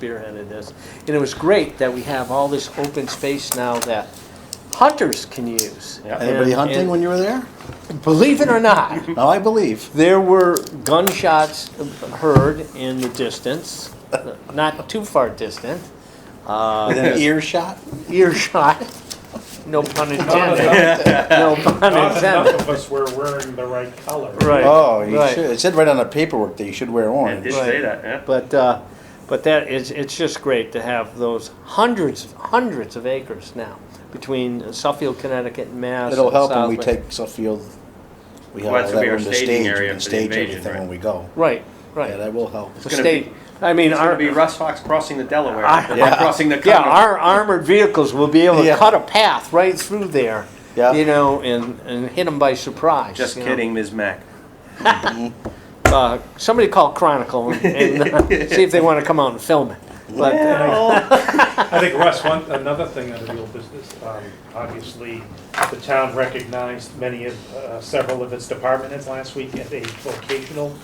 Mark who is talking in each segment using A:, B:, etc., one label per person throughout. A: spearheaded this. And it was great that we have all this open space now that hunters can use.
B: Yeah.
A: And-
B: Anybody
A: and
B: hunting when you were there?
A: Believe it or not,
B: No, I believe.
A: there were gunshots heard in the distance, not too far distant, uh,
B: Within an earshot?
A: earshot, no pun intended. No pun
C: Not enough
A: intended.
C: of us were wearing the right color.
A: Right.
B: Oh, you
A: right.
B: should. It said right on the paperwork that you should wear
D: It
B: orange.
D: did say that, yeah.
A: But, uh, but that is, it's just great to have those hundreds, hundreds of acres now between Suffield, Connecticut and Mass.
B: It'll
A: and
B: help when we
A: Southwick.
B: take Suffield. We have
D: Well, that's
B: all that
D: gonna be our
B: room to
D: staging
B: stage.
D: area
B: We can
D: for the
B: stage
D: invasion,
B: everything
D: right?
B: when we go.
A: Right,
B: Yeah,
A: right.
B: that will help.
A: The
D: gonna
A: state, I mean,
D: It's
A: our,
D: gonna be Russ Fox crossing the Delaware,
A: I-
D: like crossing the
A: yeah,
D: Continent.
A: our armored vehicles will be able to
B: Yeah.
A: cut a path right through there.
B: Yeah.
A: You know, and, and hit them by surprise.
D: Just
A: you know.
D: kidding, Ms. Mack.
A: Uh, somebody call Chronicle and, and uh, see if they want to come out and film it. But, uh,
C: I think Russ, one, another thing under the old business, um, obviously, the town recognized many of, uh, several of its department heads last week at a vocational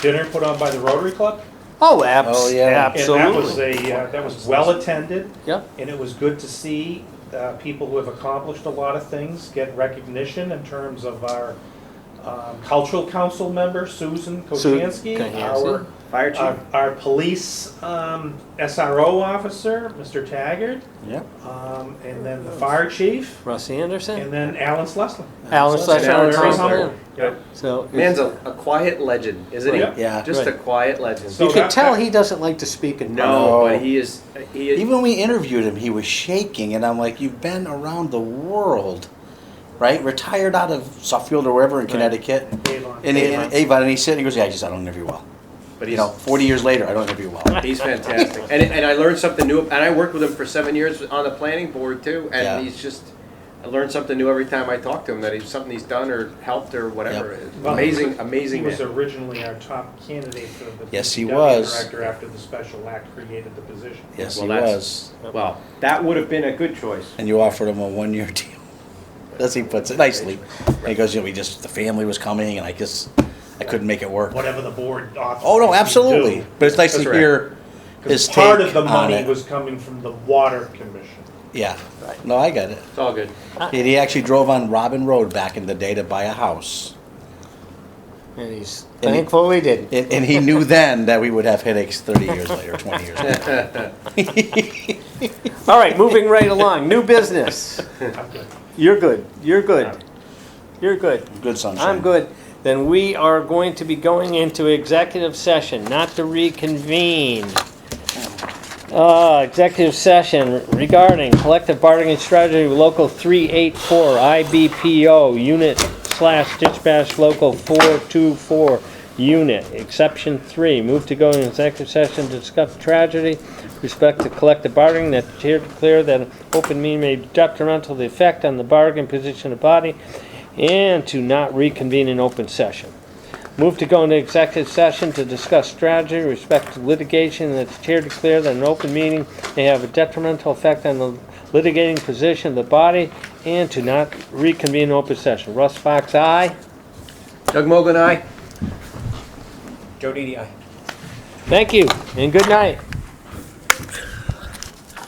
C: dinner put on by the Rotary Club.
A: oh, abs-
B: Oh, yeah.
C: And that was
A: absolutely.
C: a, uh, that was well-attended.
A: Yep.
C: And it was good to see uh, people who have accomplished a lot of things get recognition in terms of our um, cultural council member, Susan
A: Su-
C: Kochanski,
A: Kochanski.
C: our,
D: Fire
C: our,
D: chief?
C: our police um, SRO officer, Mr. Taggart,
B: Yeah.
C: um, and then the fire chief,
A: Russ Anderson,
C: and then Alan Schlesman.
A: Alan
B: so-
A: Slash
D: Yeah,
A: Alan
D: they're
C: Very
D: Schlesman.
A: Thompson.
C: humble. Yeah.
A: So
D: Man's a, a quiet legend, isn't he?
C: Right.
B: Yeah.
D: Just a
A: Right.
D: quiet legend.
C: So-
A: you can
C: that-
A: tell
C: that-
A: he doesn't like to speak in
D: No,
B: No.
D: but he is, he is,
B: Even when we interviewed him, he was shaking, and I'm like, "You've been around the world, right? Retired out of Suffield or wherever in Connecticut,
C: Avon.
B: and he-
C: Avon.
B: and Avon, and he said, "He goes, yeah, I just I don't interview well.
D: but
B: You
D: he's,
B: know, 40 years later, I don't interview well.
D: he's fantastic. And, and I learned something new, and I worked with him for seven years on the planning board too,
B: Yeah.
D: and he's just, I learned something new every time I talk to him, that he's, something he's done or helped or whatever.
C: Well,
D: Amazing,
C: He
D: amazing
C: was
D: man.
C: originally our top candidate for the
B: Yes, he
C: DPW
B: was.
C: Director after the special act created the position.
B: Yes,
D: Well,
B: he
D: that's-
B: was.
D: Well, that would have been a good choice.
B: And you offered him a one-year deal, as he puts it nicely. And he goes, you know, we just the family was coming, and I just I couldn't make it work.
C: Whatever the board authorized.
B: Oh no,
C: you to
B: absolutely.
C: do.
B: But it's nice to
D: That's right.
B: hear his
C: Because part
B: take
C: of the
B: on
C: money
B: it.
C: was coming from the water commission.
B: Yeah. No, I got it.
D: It's all good.
B: And he actually drove on Robin Road back in the day to buy a house.
A: And he's
B: And he-
A: thankful he didn't.
B: And, and he knew then that we would have headaches 30 years later, 20 years later.
A: All right, moving right along. New business.
C: I'm good.
A: You're good. You're good. You're good.
B: Good sunshine.
A: I'm good. Then we are going to be going into executive session, not to reconvene. Uh, executive session regarding collective bargaining strategy, local three eight four, IBPO, unit slash dispatch local four two four, unit, exception three, move to go in executive session to discuss tragedy, respect to collective bargaining, that the chair declare that an open meeting may be detrimental to the effect on the bargaining position of body, and to not reconvene in open session. Move to go into executive session to discuss strategy, with respect to litigation, and that the chair declare that an open meeting may have a detrimental effect on the litigating position of the body, and to not reconvene in open session. Russ Fox, aye.
D: Doug Mogul, aye?
A: Thank you, and good night.